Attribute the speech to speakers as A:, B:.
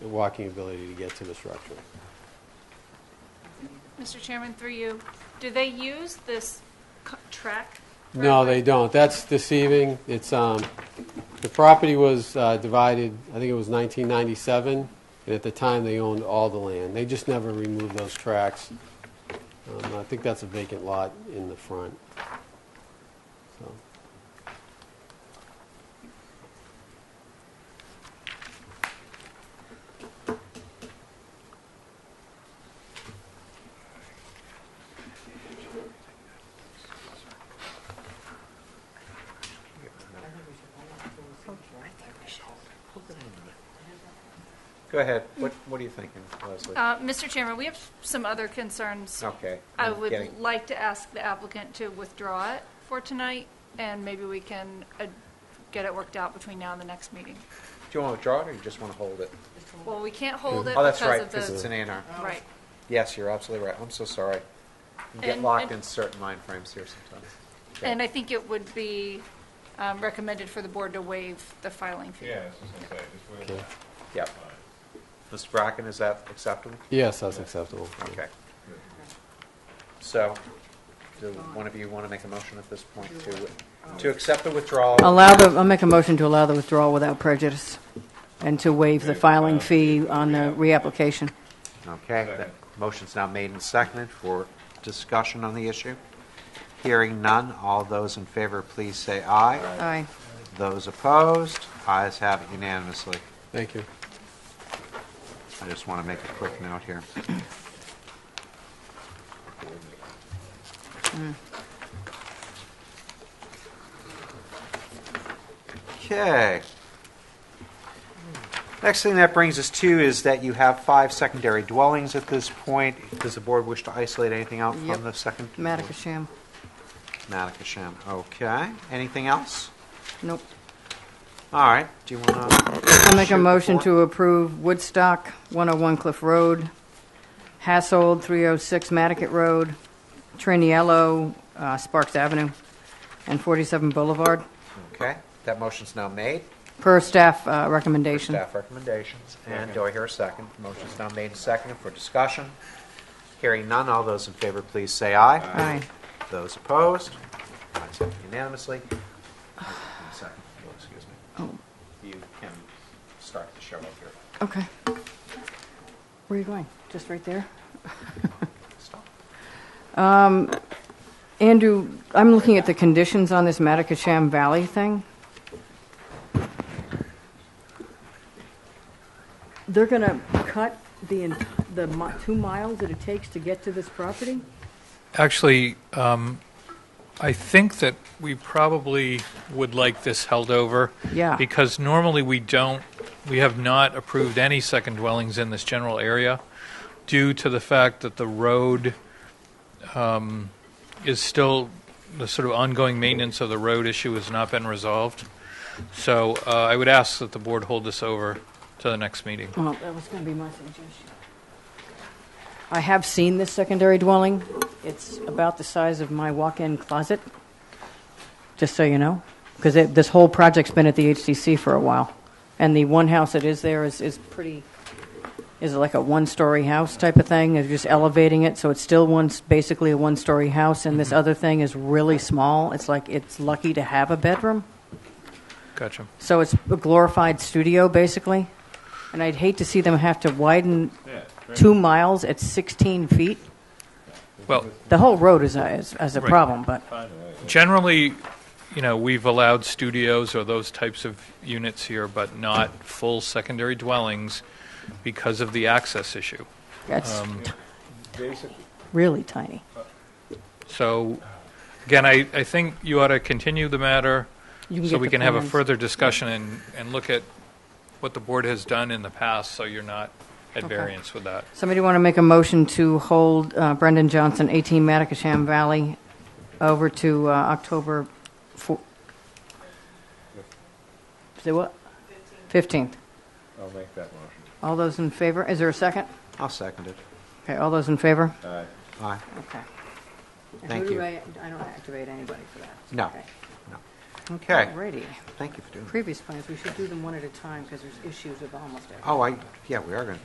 A: the walking ability to get to the structure.
B: Mr. Chairman, through you, do they use this c- track?
A: No, they don't. That's deceiving. It's, um, the property was uh, divided, I think it was 1997, and at the time, they owned all the land. They just never removed those tracks. Um, I think that's a vacant lot in the front. So,
C: Go ahead. What, what are you thinking, Leslie?
B: Uh, Mr. Chairman, we have some other concerns.
C: Okay.
B: I
C: I'm
B: would
C: getting-
B: like to ask the applicant to withdraw it for tonight, and maybe we can uh, get it worked out between now and the next meeting.
C: Do you want to withdraw it or you just want to hold it?
B: Well, we can't hold it
C: Oh, that's
B: because
C: right,
B: of
C: because it's an
B: the,
C: A and R.
B: right.
C: Yes, you're absolutely right. I'm so sorry. You get
B: And-
C: locked
B: and-
C: in certain mind frames here sometimes. Okay.
B: And I think it would be um, recommended for the board to waive the filing fee.
D: Yeah, I was just gonna say, just wait.
A: Okay.
C: Yep. Mr. Bracken, is that acceptable?
A: Yes, that's acceptable.
C: Okay. So, do one of you want to make a motion at this point to, to accept the withdrawal?
E: Allow the, I'll make a motion to allow the withdrawal without prejudice and to waive the filing fee on the reapplication.
C: Okay, that motion's now made and seconded for discussion on the issue. Hearing none, all those in favor, please say aye.
E: Aye.
C: Those opposed, ayes have it unanimously.
A: Thank you.
C: I just want to make a quick note here. Okay. Next thing that brings us to is that you have five secondary dwellings at this point. Does the board wish to isolate anything out
E: Yep.
C: from the second?
E: Matacasham.
C: Matacasham, okay. Anything else?
E: Nope.
C: All right, do you want to,
E: I'll make
C: Shoot
E: a
C: the
E: motion
C: floor.
E: to approve Woodstock, 101 Cliff Road, Hassold, 306 Matticat Road, Triniello, uh, Sparks Avenue, and 47 Boulevard,
C: okay, that motion's now made.
E: per staff uh, recommendation.
C: Staff recommendations. And do I hear a second? Motion's now made and seconded for discussion. Hearing none, all those in favor, please say aye.
E: Aye.
C: Those opposed? Ayes have it unanimously. One second, if you'll excuse me. You can start the show up here.
E: Okay. Where are you going? Just right there?
C: Stop.
E: Andrew, I'm looking at the conditions on this Matacasham Valley thing. They're going to cut the, en- the mi- two miles that it takes to get to this property?
F: Actually, um, I think that we probably would like this held over.
E: Yeah.
F: Because normally we don't, we have not approved any second dwellings in this general area due to the fact that the road um, is still, the sort of ongoing maintenance of the road issue has not been resolved. So uh, I would ask that the board hold this over to the next meeting.
E: Well, that was going to be my suggestion. I have seen this secondary dwelling. It's about the size of my walk-in closet, just so you know, because this whole project's been at the HCC for a while. And the one house that is there is, is pretty, is like a one-story house type of thing, They're just elevating it, so it's still one, s- basically a one-story house, and this other thing is really small. It's like, it's lucky to have a bedroom.
F: Gotcha.
E: So it's a glorified studio, basically. And I'd hate to see them have to widen
D: Yeah, great.
E: two miles at 16 feet.
F: Well,
E: The whole road is a, is, is a
F: Right.
E: problem, but
D: Find a way.
F: Generally, you know, we've allowed studios or those types of units here, but not full secondary dwellings because of the access issue.
E: that's
F: Um,
D: Basically,
E: really tiny.
F: So, again, I, I think you ought to continue the matter
E: You
F: so
E: get
F: we
E: the
F: can have a
E: plans.
F: further discussion and, and look at what the board has done in the past, so you're not at variance with that.
E: Somebody want to make a motion to hold uh, Brendan Johnson, 18 Matacasham Valley, over to uh, October 4th? Say what? 15th.
D: I'll make that motion.
E: All those in favor? Is there a second?
C: I'll second it.
E: Okay, all those in favor?
D: Aye.
C: Aye.
E: Okay. And
C: Thank
E: who do
C: you.
E: I, I don't activate anybody for that.
C: No.
E: Okay.
C: No. Okay,
E: Alrighty.
C: thank you for doing that.
E: Previous plans, we should do them one at a time because there's issues with almost everything.
C: Oh, I, yeah, we are going to